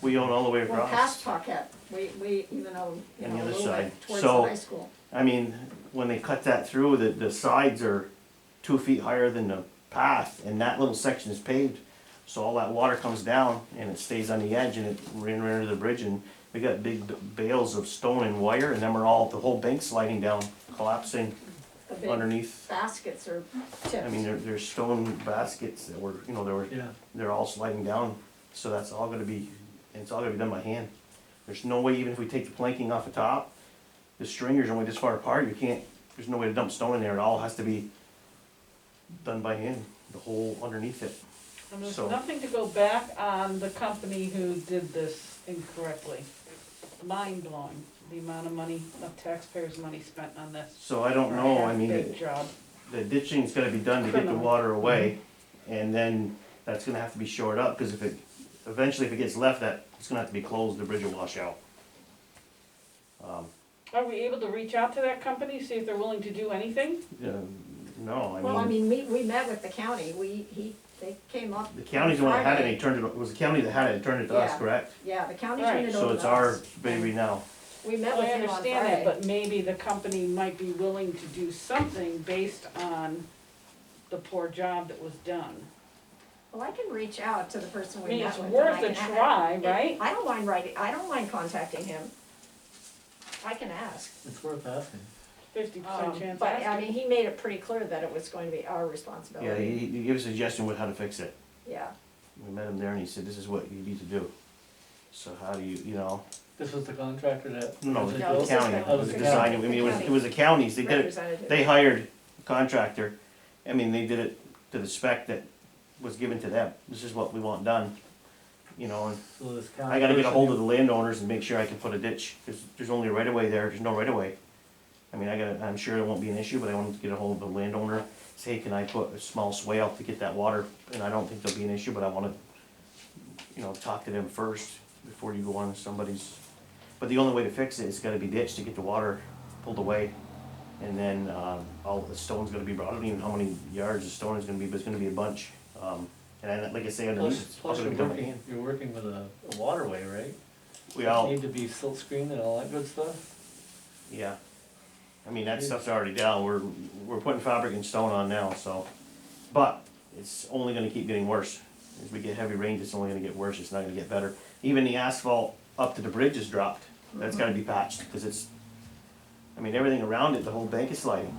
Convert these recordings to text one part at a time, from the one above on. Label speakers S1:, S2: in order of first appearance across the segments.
S1: we own all the way
S2: Well, past
S1: across.
S2: Paquette, we, we even own, you
S1: And the
S2: know, a
S1: other
S2: little bit
S1: side.
S2: towards the
S1: So-
S2: high school.
S1: I mean, when they cut that through, the, the sides are two feet higher than the path and that little section is paved. So all that water comes down and it stays on the edge and it ran right under the bridge and we got big b- bales of stone and wire and then we're all, the whole bank sliding down, collapsing
S2: The big
S1: underneath.
S2: baskets are
S1: I mean,
S2: tipped.
S1: there, there's stone baskets that were, you know, there were
S3: Yeah,
S1: they're all sliding down, so that's all gonna be, it's all gonna be done by hand. There's no way, even if we take the planking off the top, the stringers are only this far apart, you can't, there's no way to dump stone in there, it all has to be done by hand, the whole underneath it.
S4: And there's
S1: So-
S4: nothing to go back on the company who did this incorrectly. Mind blowing, the amount of money, of taxpayers' money spent on this.
S1: So I don't
S4: for a
S1: know, I mean,
S4: half-baked
S1: it-
S4: job.
S1: the ditching's gotta be done to get the
S4: Criminal.
S1: water away, and then that's gonna have to be shored up, cause if it, eventually if it gets left, that, it's gonna have to be closed, the bridge will wash out. Um,
S4: Are we able to reach out to that company, see if they're willing to do anything?
S1: yeah, no, I mean.
S2: Well, I mean, we, we met with the county, we, he, they came up.
S1: The county's the one that had it, and
S2: Friday.
S1: he turned it, it was the county that had it, and turned it to us,
S2: Yeah.
S1: correct?
S2: Yeah, the county
S4: Right.
S2: turned it over
S1: So
S2: to
S1: it's our
S2: us.
S1: baby now.
S2: We met
S4: Well,
S2: with
S4: I
S2: him on
S4: understand that,
S2: Friday.
S4: but maybe the company might be willing to do something based on the poor job that was done.
S2: Well, I can reach out to the person
S4: I
S2: we
S4: mean,
S2: met
S4: it's
S2: with. and
S4: worth
S2: I
S4: a
S2: can a-
S4: try, right?
S2: I don't mind writing, I don't mind contacting him. I can ask.
S3: it's worth asking.
S4: Fifty
S2: Um,
S4: percent chance.
S2: But, I
S4: ask
S2: mean,
S4: it.
S2: he made it pretty clear that it was going to be our
S1: Yeah,
S2: responsibility.
S1: he, he gave a suggestion with how to fix it.
S2: Yeah,
S1: We met him there and he said, this is what you need to do. So how do you, you know,
S3: This was the contractor that.
S1: no, the
S2: No, it
S1: the
S2: was
S1: county,
S2: the-
S1: it was
S3: it was
S1: the
S3: the
S1: design, I
S2: county.
S1: mean, it was,
S2: The
S1: it was the counties, they did it,
S2: representative.
S1: they hired a contractor. I mean, they did it to the spec that was given to them. This is what we want done, you know, and
S3: So this county.
S1: I gotta get a hold of the landowners and make sure I can put a ditch, there's, there's only a right of way there, there's no right of way. I mean, I gotta, I'm sure it won't be an issue, but I want to get a hold of the landowner, say, can I put a small swale to get that water? And I don't think there'll be an issue, but I wanna, you know, talk to them first before you go on somebody's. But the only way to fix it is gotta be ditched to get the water pulled away. And then, um, all, the stone's gonna be brought, I don't even know how many yards the stone is gonna be, but it's gonna be a bunch. Um, and I, like I say, underneath,
S3: Plus,
S1: it's all
S3: plus
S1: gonna
S3: you're
S1: be done by
S3: working,
S1: hand.
S3: you're working with a a waterway, right?
S1: We all,
S3: Need to be silt screened and all that good stuff.
S1: Yeah. I mean, that stuff's already down, we're, we're putting fabric and stone on now, so, but it's only gonna keep getting worse. As we get heavy rains, it's only gonna get worse, it's not gonna get better. Even the asphalt up to the bridge is dropped, that's gotta be patched, cause it's, I mean, everything around it, the whole bank is sliding.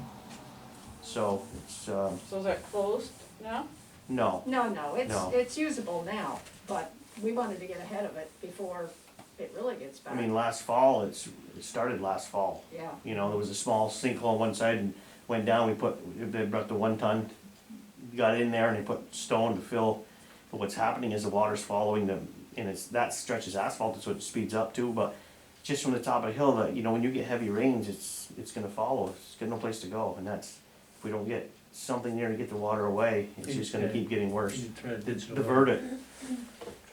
S1: So, it's, um,
S4: So is that closed now?
S1: no,
S2: No, no, it's,
S1: No.
S2: it's usable now, but we wanted to get ahead of it before it really gets
S1: I
S2: bad.
S1: mean, last fall, it's, it started last fall.
S2: Yeah,
S1: You know, there was a small sinkhole on one side and went down, we put, they brought the one ton, got in there and they put stone to fill. But what's happening is the water's following them, and it's, that stretches asphalt, so it speeds up too, but just from the top of the hill, that, you know, when you get heavy rains, it's, it's gonna follow, it's got no place to go, and that's, if we don't get something there to get the water away, it's just gonna keep getting worse.
S3: You try to ditch the
S1: Divert it.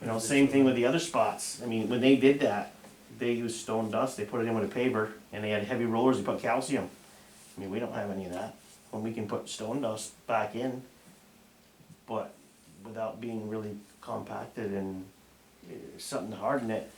S1: You know, same thing with the other spots, I mean, when they did that, they used stone dust, they put it in with a paver, and they had heavy rollers, they put calcium. I mean, we don't have any of that, when we can put stone dust back in, but without being really compacted and eh, something to harden it.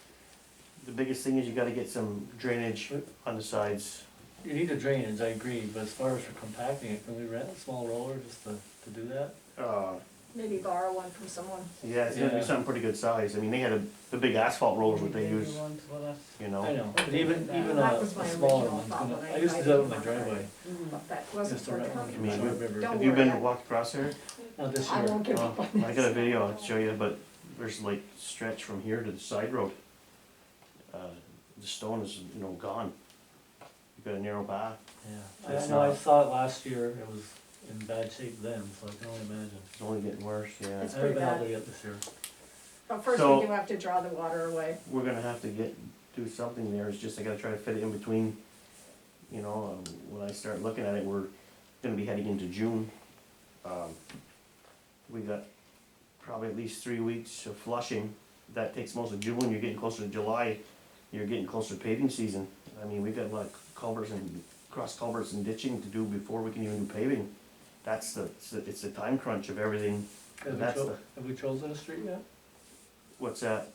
S1: The biggest thing is you gotta get some drainage on the sides,
S3: You need a drainage, I agree, but as far as for compacting it, can we rent a small roller just to, to do that?
S1: uh,
S2: maybe borrow one from someone.
S1: yeah, it's gonna be
S3: Yeah.
S1: something pretty good size, I mean, they had a, the big asphalt rollers that they
S4: Maybe
S1: use,
S4: ones with us.
S1: you
S3: I know, but even,
S4: That
S3: even
S2: was
S3: a, a
S2: my
S3: smaller
S2: original thought
S3: one, you know,
S2: when I
S3: I used to
S2: invited
S3: do that with
S2: you
S3: my
S2: on.
S3: driveway,
S2: But that wasn't
S3: just to
S2: for
S3: rent one
S2: the
S3: from the
S1: Maybe.
S3: Short River.
S2: Don't
S1: Have you been
S2: worry.
S1: walked across there?
S3: Not this
S2: I
S3: year,
S2: won't give
S1: Well,
S2: up on
S1: I got a
S2: this.
S1: video I'll show you, but there's like stretch from here to the side road. Uh, The stone is, you know, gone. You've got a narrow path.
S3: yeah. I
S1: That's
S3: know, I
S1: not-
S3: saw it last year, it was in bad shape then, so I can only imagine.
S1: It's only getting worse, yeah.
S2: It's
S3: I don't
S2: pretty
S3: know how
S2: bad.
S3: they get this year.
S2: But first
S1: So-
S2: we do have to draw the water away.
S1: We're gonna have to get, do something there. It's just I gotta try to fit it in between. You know, um, when I start looking at it, we're gonna be heading into June. Um, We got probably at least three weeks of flushing. That takes most of June. You're getting closer to July. You're getting closer to paving season. I mean, we've got a lot of culverts and cross culverts and ditching to do before we can even do paving. That's the, it's the- it's the time crunch of everything.
S3: Have we
S1: That's
S3: cho-
S1: the-
S3: have we chosen a street yet?
S1: What's that?